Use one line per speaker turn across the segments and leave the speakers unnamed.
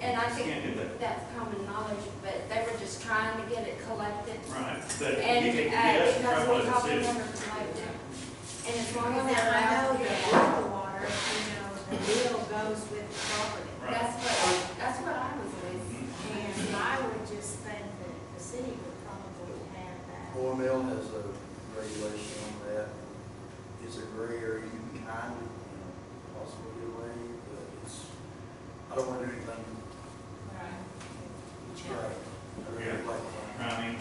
and I
You can't
think
do that.
that's common knowledge, but they were just trying to get it collected.
Right, but you
And,
can,
uh,
yes,
because
probably
we
the
probably
city.
never collected. And as long as
Well, now,
they're
I
out
know that
there,
with the water, you know, the bill goes with the property.
Right.
that's what, that's what I was raised.
And I would just think that the city would probably have that.
Four mill has a regulation on that. It's a gray area, you can kind of, you know, possibly get away, but it's, I don't want to do anything.
Right.
I really
Yeah.
like that.
I mean,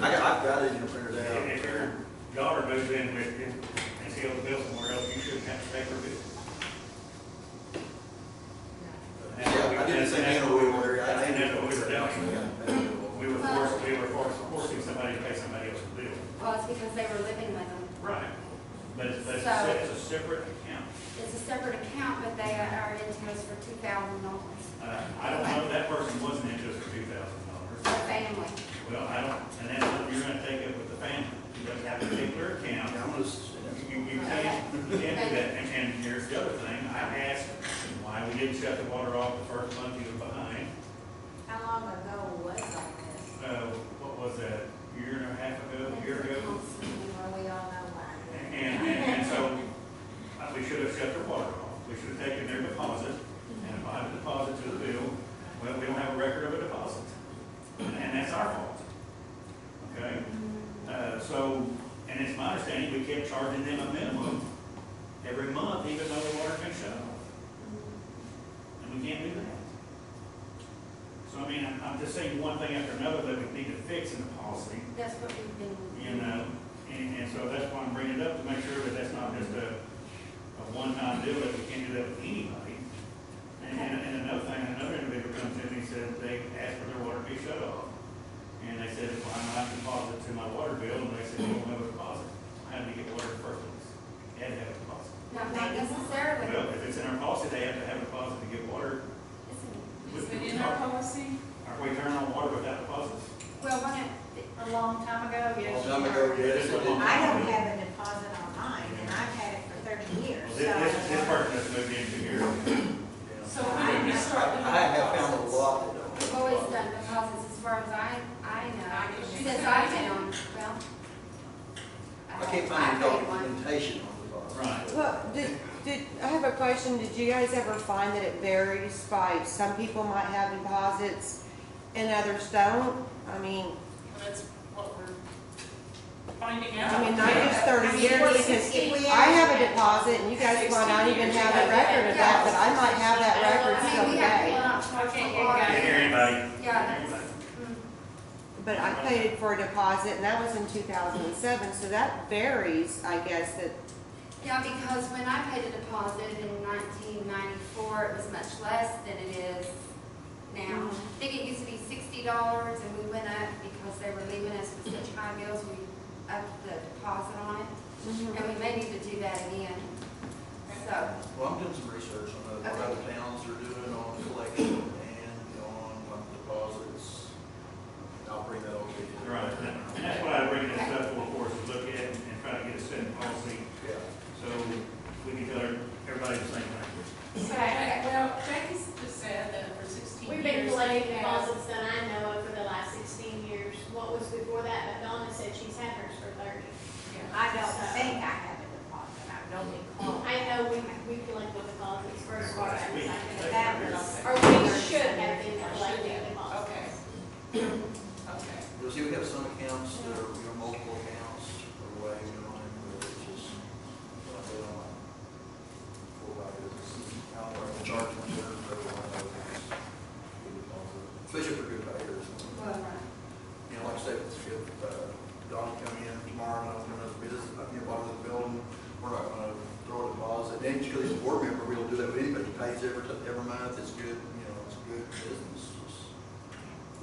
I got, I've got it in the printer
if if your
out.
daughter moves in with you and she owes a bill somewhere else, you shouldn't have to pay her bill.
Yeah, I didn't say me in a rural area. I
And
named
that's
it.
what we were doing.
doing.
We were forced, we were forced, forcing somebody to pay somebody else's bill.
Well, it's because they were living with them.
Right. But it's, but it's
So-
a- it's a separate account.
It's a separate account, but they are into us for two thousand dollars,
Uh, I don't know, if that person wasn't into us for two thousand
the
dollars.
family.
Well, I don't, and that's what you're gonna take up with the family. You don't have a particular account.
Yeah, I'm gonna, s-
You, you can't, you can't do that, and, and here's the other thing, I asked why we didn't shut the water off the first month you were behind.
How long ago was all this?
Uh, what was that, a year and a half ago, a year ago?
Well, we all know why.
And, and, and so, uh, we should have shut their water off, we should have taken their deposit and applied the deposit to the bill, well, we don't have a record of a deposit, and that's our fault. Okay, uh, so, and it's my understanding, we kept charging them a minimum every month, even though the water been shut off. And we can't do that. So I mean, I'm, I'm just saying one thing after another that we need to fix in the policy,
That's what we've been.
you know? And, and so that's why I'm bringing it up, to make sure that that's not just a, a one-time deal, that we can't do that with anybody. And, and and another thing, another individual comes in, he said they asked for their water to be shut off. And they said, well, I'm not deposit to my water bill, and they said, you don't have a deposit. How do you get water in the first place? You had to have a deposit.
Not not necessarily.
Well, if it's in our policy, they have to have a deposit to get water.
Is it in our policy?
Are we turning on water without deposits?
Well, one of,
A long time ago,
long time ago, yes, I did.
I don't have a deposit on mine, and I've had it for thirty
Well,
years,
This,
so.
this, this person that's moved into here,
Yeah.
So we need to
I
start.
I have found a lot that don't.
We've always done deposits as far as I, I know, since I've been on, well.
I can't find any
paid one.
documentation on the box.
Right.
Well, did, did, I have a question, did you guys ever find that it varies by, some people might have deposits and others don't? I mean,
That's what we're finding out.
I mean, not just thirty years, because
If we
I have a deposit and you guys might not even have a record of that, but I might have that record
I mean, we
someday.
have to go out for
I can't get
Can't
water.
hear anybody.
Yeah, that's,
But I paid for a deposit and that was in two thousand and seven, so that varies, I guess, that,
yeah, because when I paid a deposit in nineteen ninety-four, it was much less than it is now.
Mhm.
I think it used to be sixty dollars and we went up because they were leaving us with such high bills, we upped the deposit on it. And we may need to do that again, so.
Well, I'm doing some research on what
Okay.
other towns are doing on collection and on like deposits. I'll bring that over to you.
Right, and that's why I bring this up for, for us to look at and try to get a set policy,
Yeah.
so we can tell everybody the same language.
Okay.
Well, Jackie's just said that for sixteen
We've
years.
been
they
collecting
have-
deposits that I know of for the last sixteen years. What was before that, but Donna said she's had hers for thirty.
Yeah.
I don't think I have a deposit, I don't recall.
I know we, we collect the deposits for as far as I can.
That was.
Or we should have been collecting deposits.
Okay. Okay.
You'll see, we have some accounts that are, you know, multiple accounts or way, you know, and it's just, like, they don't like. Four by business, how far the charge went there, but one of those. Especially for good payers. You know, like I said, it's good, uh, Donnie coming in tomorrow, and open another business, up near the bottom of the building, we're not gonna throw a deposit, and because he's a board member, we don't do that with anybody, he pays every, t- every month, it's good, you know, it's good business.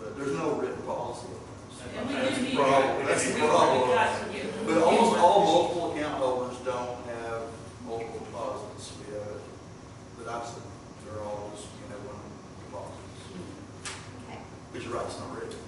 But there's no written policy on this.
And we
That's
do
the
need.
problem.
to-
That's the
we-
problem.
we got to get-
But almost all multiple account holders don't have multiple deposits, we have, it, but I've seen, they're all just, you know, one deposit.
Okay.
But you're right, it's not written.